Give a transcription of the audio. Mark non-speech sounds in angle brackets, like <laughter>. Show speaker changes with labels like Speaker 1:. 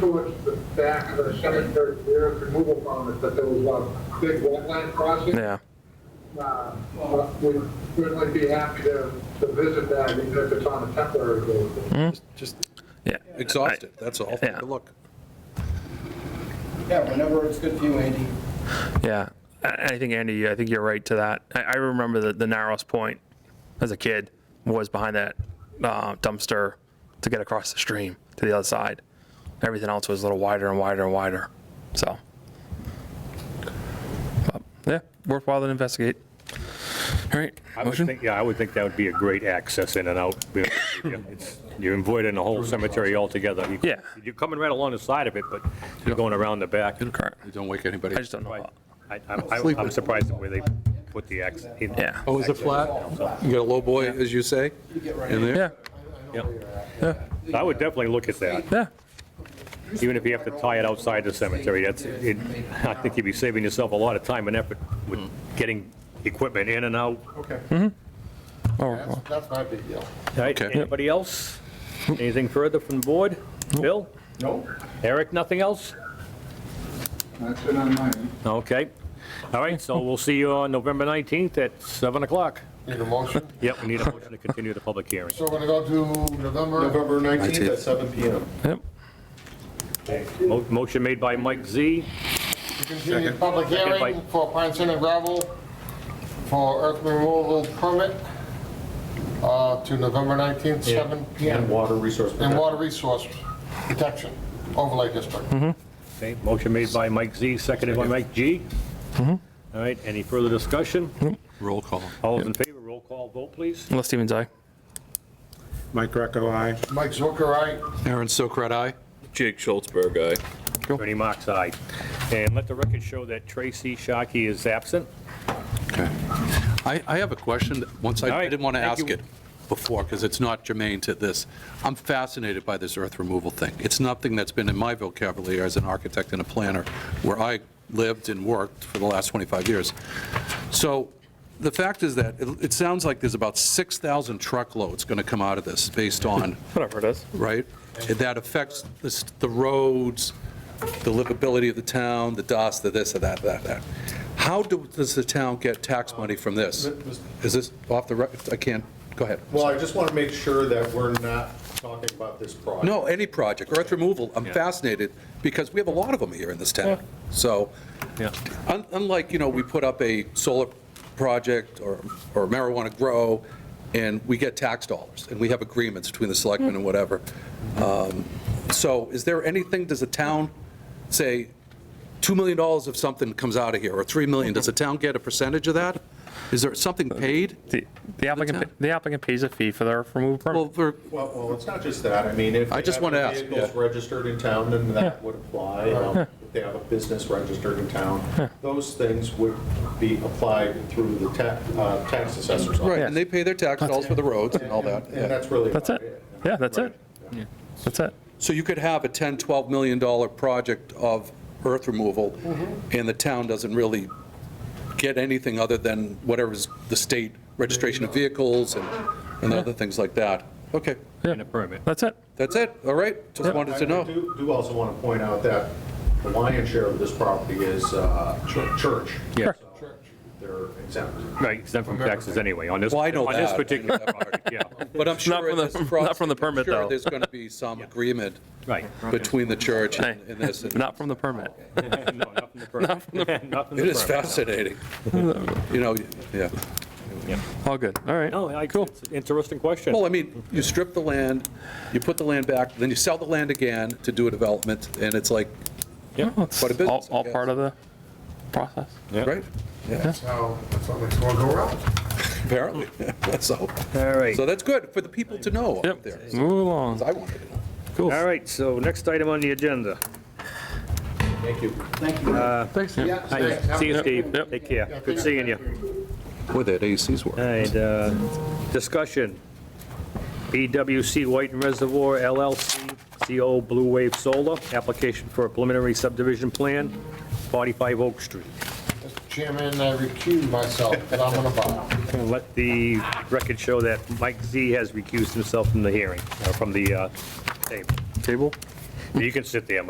Speaker 1: towards the back of the cemetery, there is removal farm, but there was a big wetland crossing.
Speaker 2: Yeah.
Speaker 1: Uh, well, We'd certainly be happy to, to visit that, even if it's on a temporary
Speaker 2: Hmm.
Speaker 1: basis.
Speaker 3: Just
Speaker 2: Yeah.
Speaker 3: exhaust it, that's all.
Speaker 2: Yeah.
Speaker 3: Take a look.
Speaker 4: Yeah, whenever it's good for you, Andy.
Speaker 2: Yeah. I, I think, Andy, I think you're right to that. I, I remember the, the narrowest point as a kid was behind that uh, dumpster to get across the stream to the other side. Everything else was a little wider and wider and wider. So, but, yeah, worthwhile to investigate. All right.
Speaker 5: I would
Speaker 2: Motion?
Speaker 5: think, yeah, I would think that would be a great access in and out. you know, it's- You're avoiding the whole cemetery altogether. You-
Speaker 2: Yeah.
Speaker 5: You're coming right along the side of it, but you're going around the back.
Speaker 2: Correct.
Speaker 3: You don't wake anybody.
Speaker 2: I just don't know.
Speaker 5: Right. I- I'm I- I'm surprised at where they put the access.
Speaker 2: Yeah.
Speaker 3: Oh, is it flat? You got a low boy, as you say, in there?
Speaker 2: Yeah.
Speaker 5: I would definitely look at that,
Speaker 2: Yeah.
Speaker 5: even if you have to tie it outside the cemetery. That's, it- I think you'd be saving yourself a lot of time and effort with getting equipment in and out.
Speaker 4: Okay.
Speaker 2: Oh, well.
Speaker 4: That's my big deal.
Speaker 5: All right,
Speaker 3: Okay.
Speaker 5: anybody else? Anything further from the board? Bill?
Speaker 4: Nope.
Speaker 5: Eric, nothing else?
Speaker 1: That's it on mine.
Speaker 5: Okay. All right, so we'll see you on November 19th at 7 o'clock.
Speaker 6: Need a motion?
Speaker 5: Yep, we need a motion to continue the public hearing.
Speaker 6: So we're gonna go to November?
Speaker 4: November 19th at 7 PM.
Speaker 2: Yep.
Speaker 5: Mo- Motion made by Mike Z.
Speaker 6: To continue the public hearing
Speaker 5: Invite.
Speaker 6: for Pine Center Gravel for earth removal permit uh, to November 19th, 7 PM.
Speaker 4: Water resource.
Speaker 6: And water resource protection overlay district.
Speaker 5: Okay, Motion made by Mike Z, seconded by Mike G. All right, any further discussion?
Speaker 3: Roll call.
Speaker 5: All those in favor, roll call vote, please.
Speaker 2: Unless Stevens, aye.
Speaker 7: Mike Greco, aye.
Speaker 6: Mike Zucker, aye.
Speaker 3: Aaron Sokrat, aye?
Speaker 8: Jake Schultzberg guy.
Speaker 5: Attorney Mark's aye. And let the record show that Tracy Shockey is absent.
Speaker 3: Okay. I, I have a question, that once, I
Speaker 5: All
Speaker 3: I
Speaker 5: right,
Speaker 3: didn't want to
Speaker 5: thank
Speaker 3: ask
Speaker 5: you.
Speaker 3: it before, because it's not germane to this. I'm fascinated by this earth removal thing. It's nothing that's been in my vocabulary as an architect and a planner, where I lived and worked for the last 25 years. So the fact is that, it it sounds like there's about 6,000 truckloads going to come out of this, based on
Speaker 2: Whatever it is.
Speaker 3: right? And That affects this- the roads, the livability of the town, the dust, the this, the that, that, that. How do- does the town get tax money from this? Is this off the, rec- I can't, go ahead.
Speaker 7: Well, I just want to make sure that we're not talking about this project.
Speaker 3: No, any project, earth removal, I'm fascinated, because we have a lot of them here in this town. So,
Speaker 5: Yeah.
Speaker 3: un- unlike, you know, we put up a solar project or or marijuana grow, and we get tax dollars, and we have agreements between the selectmen and whatever. Um, So is there anything, does the town say, $2 million if something comes out of here, or $3 million, does the town get a percentage of that? Is there something paid?
Speaker 2: The the applicant,
Speaker 3: town.
Speaker 2: the applicant pays a fee for their removal permit.
Speaker 3: Well, for-
Speaker 7: Well, well, it's not just that, I mean, if.
Speaker 3: I
Speaker 7: they
Speaker 3: just
Speaker 7: have
Speaker 3: wanna
Speaker 7: their
Speaker 3: ask,
Speaker 7: Vehicles
Speaker 3: yeah.
Speaker 7: registered in town, then that would apply.
Speaker 2: <laughs>
Speaker 7: Um, If they have a business registered in town, those things would be applied through the tax, uh, tax assessor's office.
Speaker 3: right, and they pay their tax dollars for the roads and all that. yeah.
Speaker 7: And that's really
Speaker 2: That's
Speaker 7: about
Speaker 2: it.
Speaker 7: it.
Speaker 2: Yeah, that's
Speaker 7: Right.
Speaker 2: it. That's it.
Speaker 3: So you could have a 10, 12 million dollar project of earth removal, and the town doesn't really get anything other than whatever's the state registration of vehicles and, and other things like that. Okay,
Speaker 5: And a permit.
Speaker 2: That's it.
Speaker 3: that's it, all right, just wanted to
Speaker 7: I
Speaker 3: know.
Speaker 7: do- do also want to point out that the lion's share of this property is uh, chur- church.
Speaker 5: Yeah.
Speaker 7: So They're exempt.
Speaker 5: Right, exempt from taxes anyway on this.
Speaker 3: Well, I know
Speaker 5: On this
Speaker 3: that.
Speaker 5: particular project, yeah.
Speaker 3: But I'm sure.
Speaker 2: from
Speaker 3: in
Speaker 2: the- <laughs>
Speaker 3: this
Speaker 2: not
Speaker 3: process-
Speaker 2: from the
Speaker 3: I'm
Speaker 2: permit,
Speaker 3: sure
Speaker 2: though.
Speaker 3: there's going to be some agreement
Speaker 5: Right. <laughs>
Speaker 3: between the church
Speaker 2: Hey,
Speaker 3: and and this.
Speaker 2: <laughs>
Speaker 3: and-
Speaker 2: Not from the permit.
Speaker 5: No,
Speaker 3: <laughs>
Speaker 5: not from the permit. Not from the
Speaker 3: It is
Speaker 5: permit.
Speaker 3: fascinating. You know, yeah.
Speaker 2: All good. All right.
Speaker 5: No, I, it's an interesting question.
Speaker 3: Well, I mean, you strip the land, you put the land back, then you sell the land again to do a development, and it's like,
Speaker 5: Yeah.
Speaker 3: Quite a
Speaker 2: It's all,
Speaker 3: business, I
Speaker 2: all
Speaker 3: guess.
Speaker 2: part of the process.
Speaker 3: right?
Speaker 6: That's how, that's how it's gonna go around.
Speaker 3: Apparently, <laughs> so,
Speaker 5: All right.
Speaker 3: so that's good for the people to know out there.
Speaker 2: Yep, move along.
Speaker 3: I wanted to know.
Speaker 5: All right, so next item on the agenda.
Speaker 7: Thank you.
Speaker 4: Thank you.
Speaker 3: Thanks.
Speaker 6: Yeah,
Speaker 5: Hi,
Speaker 6: thanks.
Speaker 5: See you, Steve.
Speaker 2: Yep.
Speaker 5: Take care. Good seeing you.
Speaker 3: Boy, that AC's
Speaker 5: All
Speaker 3: working.
Speaker 5: right, uh, discussion. BWC White and Reservoir LLC, CO Blue Wave Solar, application for a preliminary subdivision plan, 45 Oak Street.
Speaker 6: Mr. Chairman, I recuse myself, but I'm gonna bow.
Speaker 5: And Let the record show that Mike Z has recused himself from the hearing, uh, from the uh, table.
Speaker 2: Table?
Speaker 5: You can sit there,